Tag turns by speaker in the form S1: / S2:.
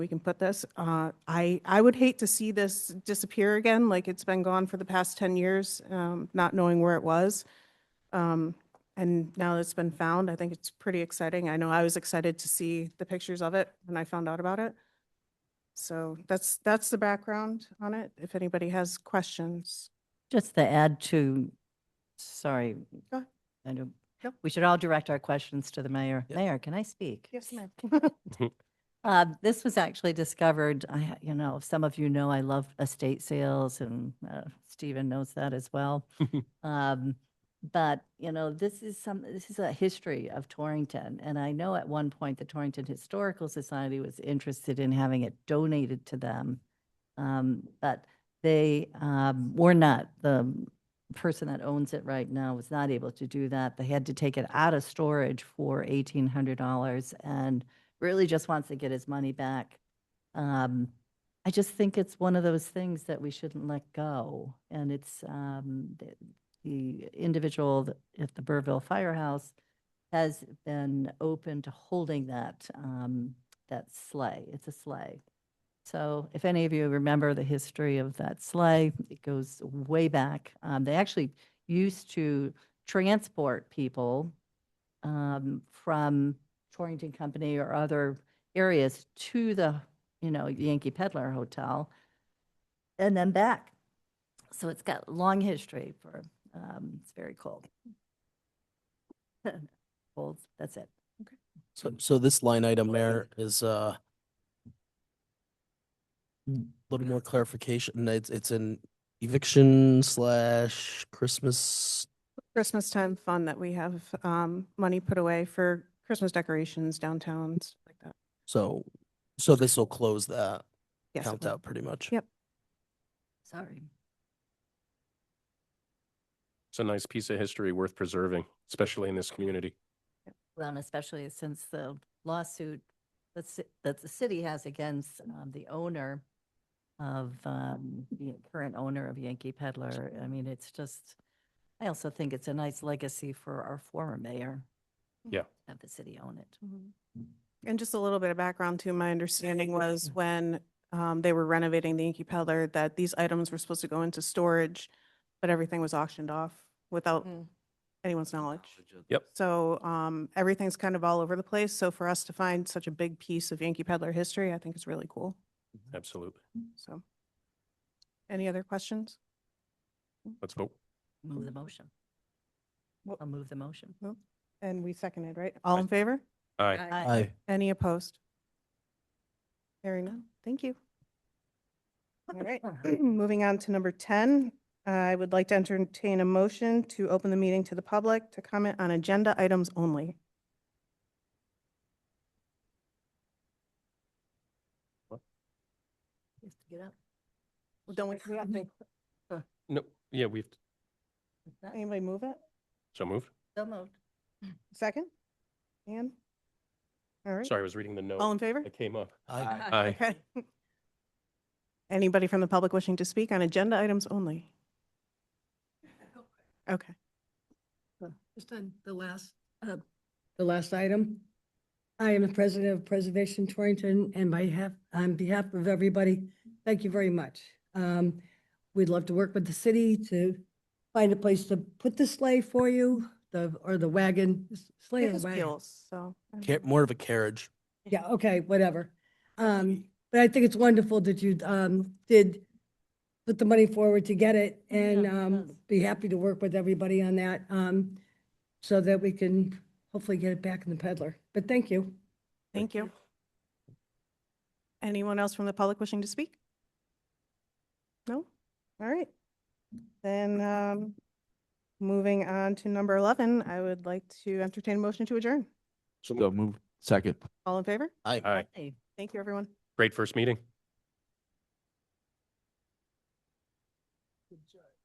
S1: we can put this. Uh, I, I would hate to see this disappear again, like it's been gone for the past 10 years, um, not knowing where it was. Um, And now that it's been found, I think it's pretty exciting. I know I was excited to see the pictures of it when I found out about it. So that's, that's the background on it, if anybody has questions.
S2: Just to add to, sorry.
S1: Go ahead.
S2: I don't-
S1: Nope.
S2: We should all direct our questions to the mayor.
S3: Yeah.
S2: Mayor, can I speak?
S1: Yes, ma'am.
S2: Uh, This was actually discovered, I, ha- you know, some of you know I love estate sales and uh, Stephen knows that as well. Um, But, you know, this is some, this is a history of Torrington. And I know at one point the Torrington Historical Society was interested in having it donated to them. Um, But they um, were not, the person that owns it right now was not able to do that. They had to take it out of storage for $1,800 and really just wants to get his money back. Um, I just think it's one of those things that we shouldn't let go. And it's, um, the, the individual th- at the Burville Firehouse has been open to holding that, um, that sleigh. It's a sleigh. So if any of you remember the history of that sleigh, it goes way back. Um, they actually used to transport people, um, from Torrington Company or other areas to the, you know, Yankee Peddler Hotel and then back. So it's got long history for, um, it's very cold. Cold, that's it.
S3: So, so this line item, Mayor, is uh, a little more clarification. It's, it's an eviction slash Christmas.
S1: Christmas time fun that we have um, money put away for Christmas decorations downtown, stuff like that.
S3: So, so this will close that
S1: Yes, it
S3: count
S1: will.
S3: out pretty much.
S1: Yep.
S2: Sorry.
S4: It's a nice piece of history worth preserving, especially in this community.
S2: Well, and especially since the lawsuit that, ci- that the city has against um, the owner of, um, the current owner of Yankee Peddler. I mean, it's just, I also think it's a nice legacy for our former mayor.
S4: Yeah.
S2: Have the city own it.
S1: Mm-hmm. And just a little bit of background too, my understanding was when um, they were renovating the Yankee Peddler, that these items were supposed to go into storage, but everything was auctioned off without anyone's knowledge.
S4: Yep.
S1: So um, everything's kind of all over the place. So for us to find such a big piece of Yankee Peddler history, I think is really cool.
S4: Absolutely.
S1: So. Any other questions?
S4: Let's vote.
S2: Move the motion.
S1: Well-
S2: I'll move the motion.
S1: And we seconded, right? All in favor?
S4: Aye.
S3: Aye.
S1: Any opposed? Hearing none. Thank you. All right, moving on to number 10. I would like to entertain a motion to open the meeting to the public to comment on agenda items only.
S2: Get up.
S1: Don't we, we have to-
S4: No, yeah, we've,
S1: anybody move it?
S4: so moved.
S2: So moved.
S1: Second? Ann? All right,
S4: Sorry, I was reading the
S1: all
S4: note
S1: in favor?
S4: that came up.
S3: Aye.
S4: Aye.
S1: Okay. Anybody from the public wishing to speak on agenda items only? Okay,
S5: Just on the last, uh, the last item. I am the president of Preservation Torrington and by half, on behalf of everybody, thank you very much. Um, we'd love to work with the city to find a place to put the sleigh for you, the, or the wagon, sleigh
S1: it
S5: or
S1: has
S5: wagon.
S1: wheels, so. I don't
S3: Ca-
S1: know.
S3: More of a carriage.
S5: Yeah, okay, whatever. Um, but I think it's wonderful that you, um, did put the money forward to get it
S2: Yeah,
S5: and,
S2: yes.
S5: um, be happy to work with everybody on that, um, so that we can hopefully get it back in the peddler. But thank you.
S1: Thank you. Anyone else from the public wishing to speak? No? All right. Then, um, moving on to number 11, I would like to entertain a motion to adjourn.
S6: So moved. Second.
S1: All in favor?
S3: Aye.
S4: Aye.
S2: Aye.
S1: Thank you, everyone.
S4: Great first meeting.